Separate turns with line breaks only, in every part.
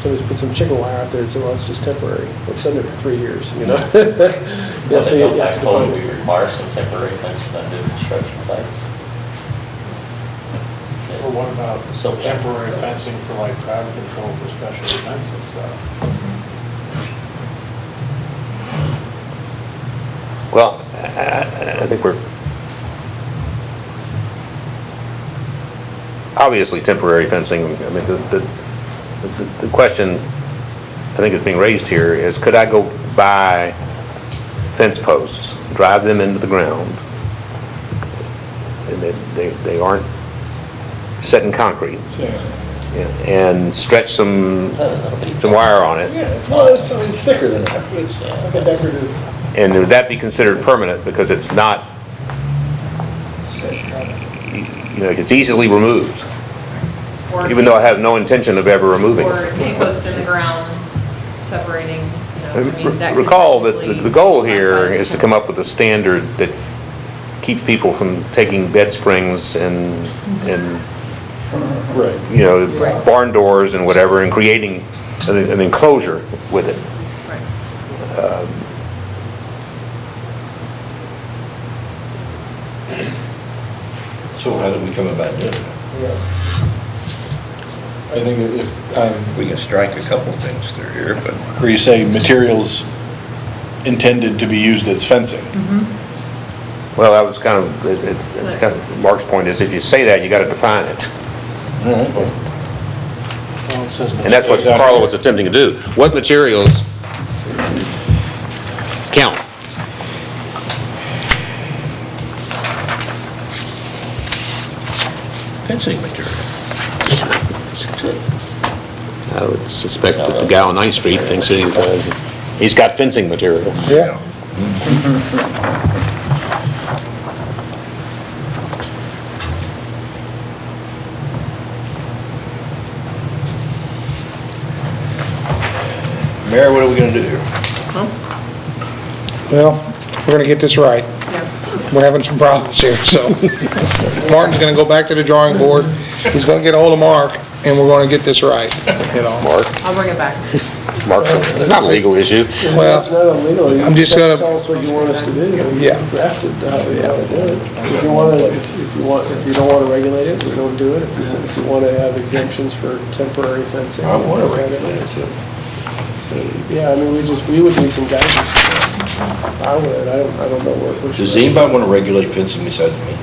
somebody's put some chicken wire out there and said, well, it's just temporary. Well, It's been there for three years, you know? Yeah,
Well,
so
they
you
don't
have
like
to
code,
find-
we require some temporary things on new construction sites.
Or what about
So-
temporary fencing for like crowd control for special events and stuff?
Well, I- I I think we're, obviously temporary fencing, I mean, the, the- the the question I think is being raised here is, could I go buy fence posts, drive them into the ground? And they, they they aren't set in concrete, and stretch some, some wire on it?
Yeah, well, it's, I mean, it's thicker than that. It's
uh,
like a decorative.
And would that be considered permanent because it's not, you know, it's easily removed,
Or
even though I have no intention of ever removing
Or two posts in the
it.
ground separating, you know, I mean, that. could
Recall that the-
technically
the goal
classify
here
as a
is to
temp-
come up with a standard that keeps people from taking bed springs and, and,
Right.
you know,
Right.
barn doors and whatever, and creating an an enclosure with it.
Right.
So how do we come about doing it?
I think if, um,
We can strike a couple things through here, but
where you say materials intended to be used as fencing.
Well, that was kind of, it- it- kind of Mark's point is, if you say that, you got to define it. And that's what Carla was attempting to do. What materials count?
fencing material.
I would suspect that the guy on Ninth Street thinks that he's, uh, he's got fencing material.
Yeah.
Mayor, what are we gonna do here?
Well, we're gonna get this right.
Yeah.
We're having some problems here, so Martin's gonna go back to the drawing board. He's gonna get ahold of Mark, and we're gonna get this right, you know?
Mark,
I'll bring it back.
Mark, it's not a legal issue.
Well,
It's not illegal. You
I'm just
have to Tell
gonna-
us what you want us to do. and we
Yeah.
can Draft it, how you want to do it. If you want to, if you want, if you don't want to regulate it, we don't do it. If you- If you want to have exemptions for temporary fencing.
I wanna
we have it.
regulate it, so.
So, yeah, I mean, we just, we would need some guidance. I would, I don't, I don't know what. what
Does
should-
anybody wanna regulate fencing besides me?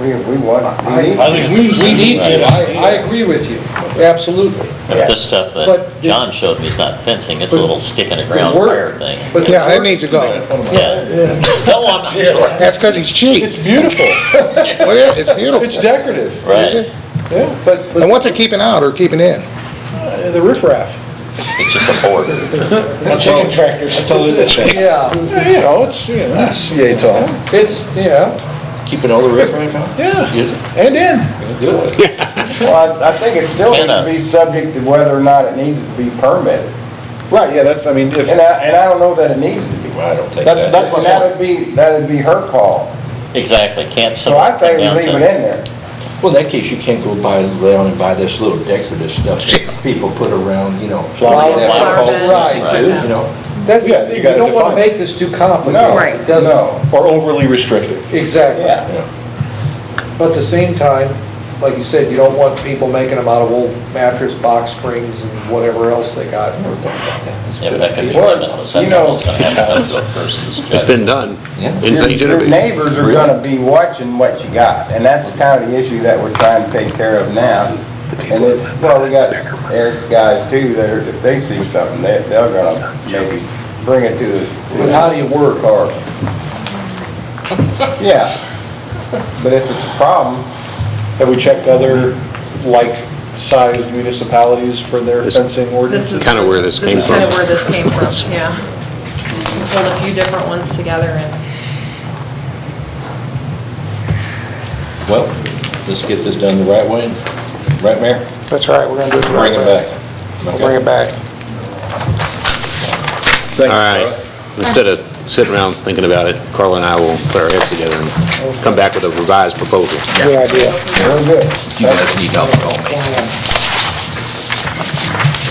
We, we want, we need,
I think it's a-
we need to, I, I agree with you, absolutely.
But this stuff that
But the-
John showed me is not fencing, it's a
but-
little stick in the
The
ground
work-
wire thing.
but the
Yeah, that
work-
needs to go.
Yeah. No, I'm not sure.
That's 'cause he's cheap.
It's beautiful,
Well, yeah, it's beautiful.
it's decorative,
Is
Right,
it?
yeah, but,
And
but
what's it keeping out or keeping in?
uh, the riffraff.
it's just a board.
Chicken tractors. Yeah, you know, it's, you know, it's-
Yeah, it's all.
it's, yeah,
Keeping all the record right now?
yeah,
Yes,
and in.
good.
Well, I I think it still needs to be subject to whether or not it needs to be permitted.
Right, yeah, that's, I mean, if,
And I, and I don't know that it needs to be.
Well, I don't take
That-
that.
that's my
And That would be, that would be her call.
Exactly, can't.
So I
someone come
think we
down
leave it
to-
in there.
Well, in that case, you can't go buy, around and buy this little decorative stuff that people put around, you know.
Flower
that
beds.
call it
Right.
something too, You know,
that's, the
Yeah, you
thing, you
gotta
don't want to
define it.
make this too complicated.
No,
Right.
it doesn't,
or overly restrictive.
Exactly.
yeah.
But at the same time, like you said, you don't want people making them out of old mattress, box springs, and whatever else they got.
Yeah, but that could be
Well,
limitless,
you
that's
know-
almost gonna have to go versus
It's
judge.
been done in
Your-
St.
Your
Genevieve.
neighbors are gonna be watching what you got, and that's kind of the issue that we're trying to take care of now. And it's, well, we got Eric's guys too, that are, if they see something, they, they're gonna maybe bring it to the.
But how do you work?
Or, yeah, but if it's a problem,
Have we checked other like-sized municipalities for their
This-
fencing
This
ordinances?
is.
Kinda where this came
This is kind
from.
of where this came from, yeah. We Pulled a few different ones together and,
Well, let's get this done the right way, right, Mayor?
That's right, we're gonna do it the right
Bring it
way.
back.
We'll Bring it back.
Thank you,
All right,
Charlie.
instead of sitting around thinking about it, Carla and I will put our heads together and come back with a revised proposal.
Good idea.
we're good.
You guys need help at all, man.